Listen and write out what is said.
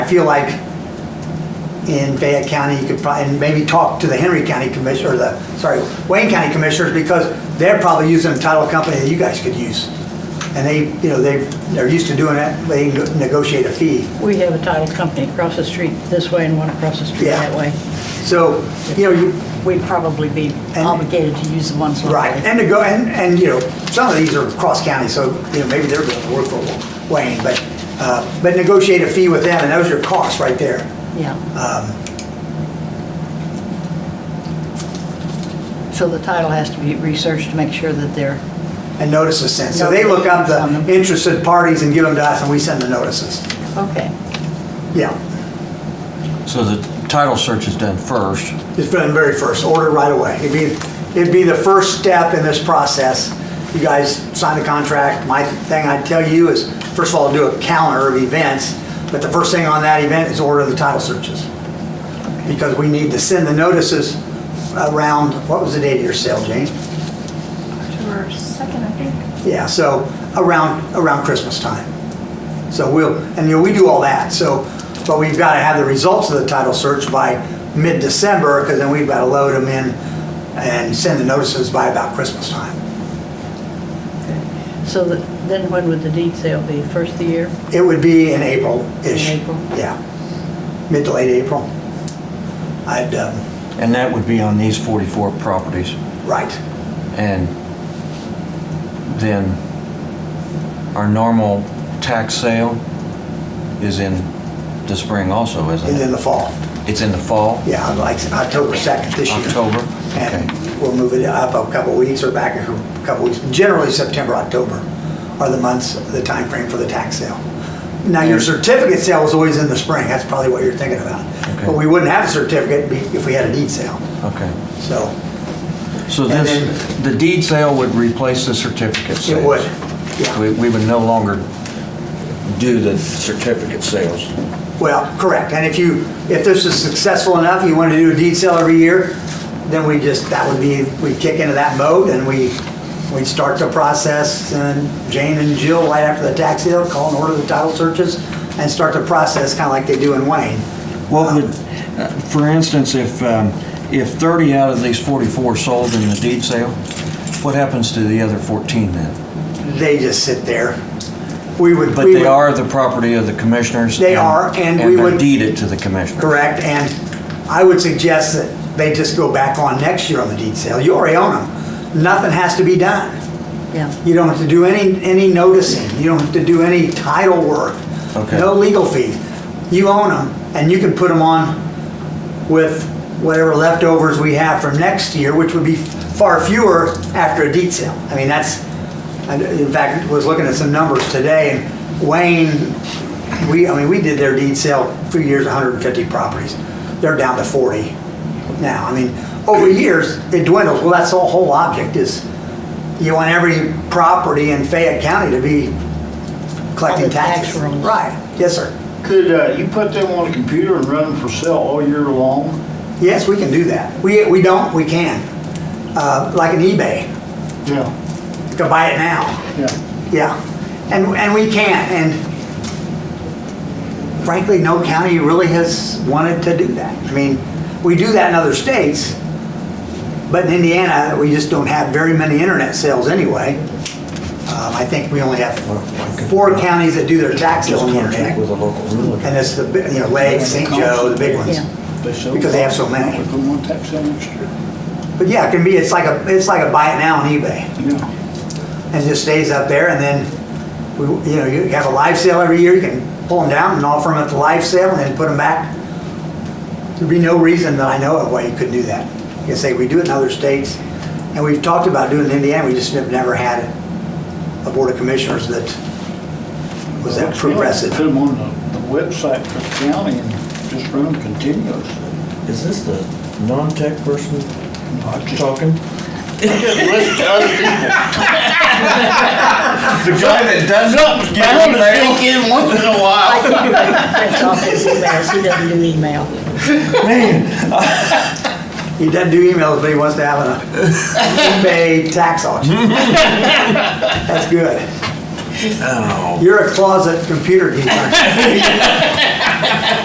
feel like in Fayette County, you could probably, and maybe talk to the Henry County Commissioner, or the, sorry, Wayne County Commissioners, because they're probably using a title company that you guys could use. And they, you know, they, they're used to doing it, they negotiate a fee. We have a title company across the street this way and one across the street Yeah. that way. So, you know, you, We'd probably be obligated to use the ones locally. Right, and to go, and, and, you know, some of these are cross county, so, you know, maybe they're going to work for Wayne, but, uh, but negotiate a fee with them, and those are costs right there. Yeah. Um, So the title has to be researched to make sure that they're, And notices sent, so they look up the interested parties and give them to us, and we send the notices. okay. Yeah, So the title search is done first. it's been the very first, order right away. It'd be, it'd be the first step in this process. You guys sign the contract, my thing I'd tell you is, first of all, do a calendar of events, but the first thing on that event is order the title searches. because we need to send the notices around, what was the date of your sale, Jane? October 2nd, I think. Yeah, so around, around Christmas time. So we'll, and you know, we do all that, so, but we've got to have the results of the title search by mid-December, because then we've got to load them in and send the notices by about Christmas time. So that, then when would the deed sale be? First of the year? It would be in April-ish. In April. Yeah, mid to late April. I'd, um, And that would be on these 44 properties. right, And then our normal tax sale is in the spring also, and isn't then it? the fall. It's in the fall, Yeah, like October 2nd this year. October? Okay. And we'll move it up a couple weeks or back a couple weeks. Generally, September, October are the months, the time frame for the tax sale. Now, your certificate sale is always in the spring. That's probably what you're thinking about. Okay. But we wouldn't have a certificate be- if we had a deed sale. Okay. So So And this, the deed sale would replace the certificate sales? it would, yeah. We we would no longer do the certificate sales. Well, correct. And if you, if this is successful enough, you want to do a deed sale every year, then we just, that would be, we kick into that mode and we, we'd start the process and Jane and Jill, right after the tax sale, call and order the title searches and start the process kind of like they do in Wayne. What would, uh, for instance, if, um, if 30 out of these 44 sold in the deed sale, what happens to the other 14 then? They just sit there. We would. But we they would- are the property of the commissioners. They are, and we they would- deed it to the commissioner. Correct, and I would suggest that they just go back on next year on the deed sale. You already own them. Nothing has to be done. Yeah. You don't have to do any, any noticing, you don't have to do any title work. Okay. No legal fees. You own them, and you can put them on with whatever leftovers we have from next year, which would be far fewer after a deed sale. I mean, that's, I- in fact, was looking at some numbers today, and Wayne, we, I mean, we did their deed sale a few years, 150 properties. They're down to 40 now. I mean, over years, it dwindles. Well, that's the whole object is, you want every property in Fayette County to be collecting All the tax taxes. rolls. Right, yes, sir. Could uh, you put them on a computer and run them for sale all year long? Yes, we can do that. We, we don't, we can. Uh, like an eBay, Yeah, you can buy it now. yeah. Yeah. And, and we can, and frankly, no county really has wanted to do that. I mean, we do that in other states, but in Indiana, we just don't have very many internet sales anyway. Um, I think we only have four counties that do their taxes Just on the contract internet. with a local And realtor. it's the, big- you know, Lake, St. Joe, the big ones. Yeah. Because they have so many. Put them on tax sale next year. But yeah, it can be, it's like a, it's like a buy it now on eBay. Yeah, and just stays up there, and then, we, you know, you have a live sale every year, you can pull them down and offer them at the live sale and then put them back. There'd be no reason that I know of why you couldn't do that. Like I say, we do it in other states, and we've talked about doing it in Indiana, we just have never had a board of commissioners that was that progressive. Put them on the the website for the county and just run them continuously. Is this the non-tech person I just- talking? Just listen to other people. The guy that does something's bound to sneak in once in a I while. think you can print off his emails. He doesn't do email. He doesn't do emails, but he wants to have an eBay tax auction. That's good. You're a closet computer geek, aren't you?